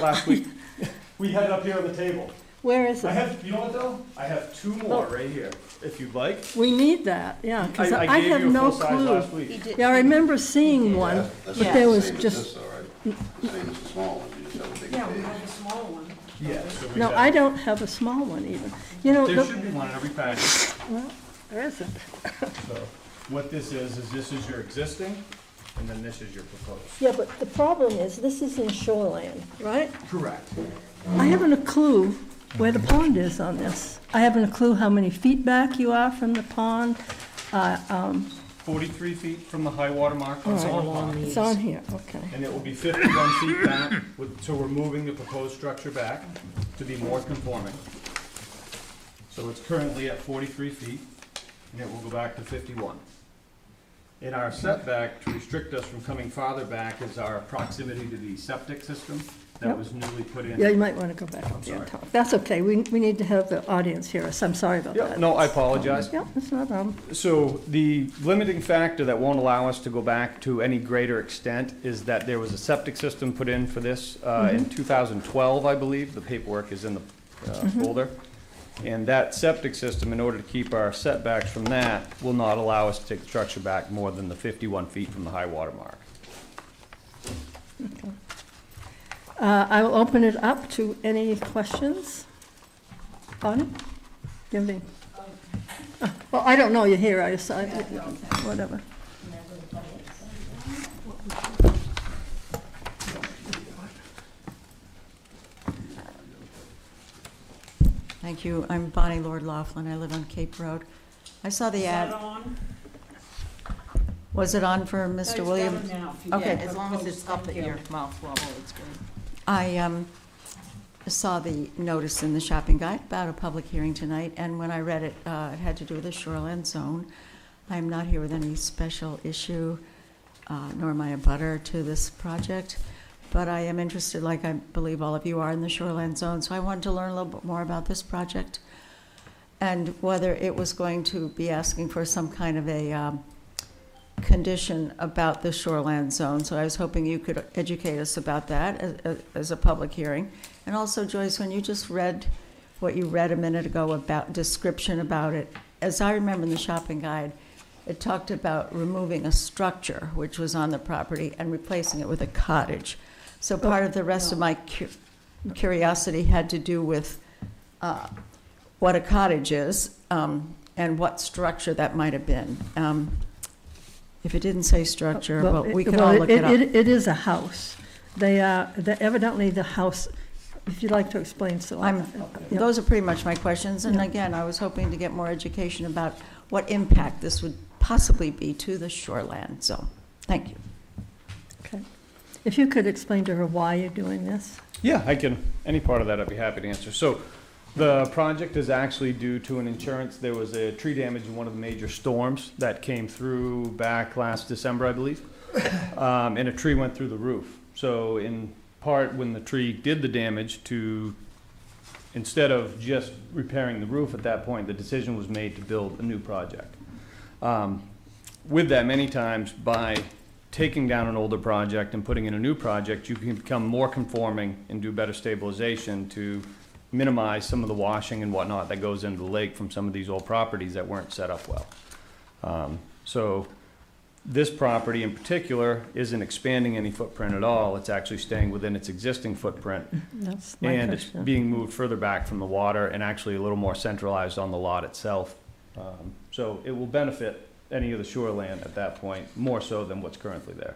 last week. We had it up here on the table. Where is I it? have, you know what though? I have two more right here, if you'd like. We need that, yeah, because I- I I gave have you a no full size clue. last week. Yeah, I remember seeing one, but That's not there the was same as this just, though, right? The same as the small one, you just have a big Yeah, we page. had the small one. Yeah. so we no, have- I don't have a small one even. You know, There the- should be one in every package. well, there isn't. So what this is, is this is your existing and then this is your proposed. Yeah, but the problem is, this is in shoreline, right? Correct. I Mm-hmm. haven't a clue where the pond is on this. I haven't a clue how many feet back you are from the pond. Forty-three feet from the high water mark on Silver Pond. It's on here, okay. And it will be fifty-one feet back with, so we're moving the proposed structure back to be more conforming. So it's currently at forty-three feet and it will go back to fifty-one. In our setback, to restrict us from coming farther back is our proximity to the septic system that Yep. was newly put in. Yeah, you might want to go back up there and sorry. talk. That's okay, we, we need to have the audience hear us, I'm sorry about Yeah, that. no, I apologize. Yeah, that's not, um, So the limiting factor that won't allow us to go back to any greater extent is that there was a septic system put in for this uh, in 2012, I believe. The paperwork is in the uh, folder. And that septic system, in order to keep our setbacks from that, will not allow us to take the structure back more than the 51 feet from the high water mark. uh, I will open it up to any questions. Bonnie? Give me. Oh, Well, I don't know, you're here, I decided, whatever. Thank you. I'm Bonnie Lord Laughlin. I live on Cape Road. I saw the ad. Was it on for Mr. Williams? Okay. Yeah, as long as it's up at your mouth level, it's good. I um, saw the notice in the shopping guide about a public hearing tonight, and when I read it, uh, it had to do with the shoreline zone. I am not here with any special issue, uh, nor am I a butter to this project, but I am interested, like I believe all of you are, in the shoreline zone, so I wanted to learn a little bit more about this project and whether it was going to be asking for some kind of a um, condition about the shoreland zone, so I was hoping you could educate us about that as- as- as a public hearing. And also, Joyce, when you just read what you read a minute ago about description about it, as I remember in the shopping guide, it talked about removing a structure which was on the property and replacing it with a cottage. So Oh, part of the rest of my cu- curiosity had to do with uh, what a cottage is um, and what structure that might have been. Um, If it didn't say structure, Oh, Well, but we it- could well, all look it up. It is a house. They are, they- evidently the house, if you'd like to explain, so. I'm, Yeah. those are pretty much my questions, and Yeah. again, I was hoping to get more education about what impact this would possibly be to the shoreland. so, thank you. Okay. If you could explain to her why you're doing this? Yeah, I can, any part of that I'd be happy to answer. So the project is actually due to an insurance, there was a tree damage in one of the major storms that came through back last December, I believe. Um, and a tree went through the roof. So in part, when the tree did the damage to, instead of just repairing the roof at that point, the decision was made to build a new project. Um, with that, many times by taking down an older project and putting in a new project, you can become more conforming and do better stabilization to minimize some of the washing and whatnot that goes into the lake from some of these old properties that weren't set up well. Um, So this property in particular isn't expanding any footprint at all. It's actually staying within its existing footprint. That's my And it's question. being moved further back from the water and actually a little more centralized on the lot itself. Um, So it will benefit any of the shoreland at that point, more so than what's currently there.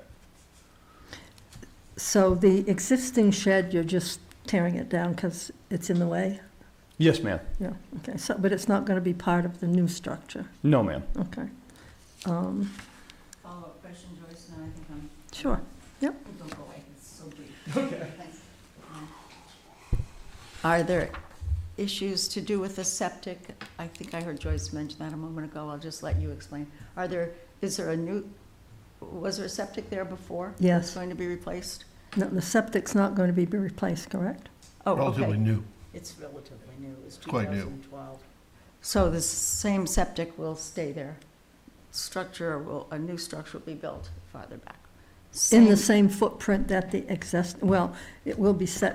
So the existing shed, you're just tearing it down because it's in the way? Yes, ma'am. Yeah, okay, so, but it's not going to be part of the new structure, No, ma'am. okay. Um, Follow-up question, Joyce, and I think I'm, Oh, Sure, don't go away, it's so brief. Okay. Are there issues to do with the septic? I think I heard Joyce mention that a moment ago, I'll just let you explain. Are there, is there a new, was there a septic there before? Yes. That's going to be replaced? No, the septic's not going to be replaced, correct? Oh, relatively okay. new. It's relatively new, it's quite new. 2012. So the same septic will stay there? Structure will, a new structure will be built farther back? In the same Same- footprint that the exist, well, it will be set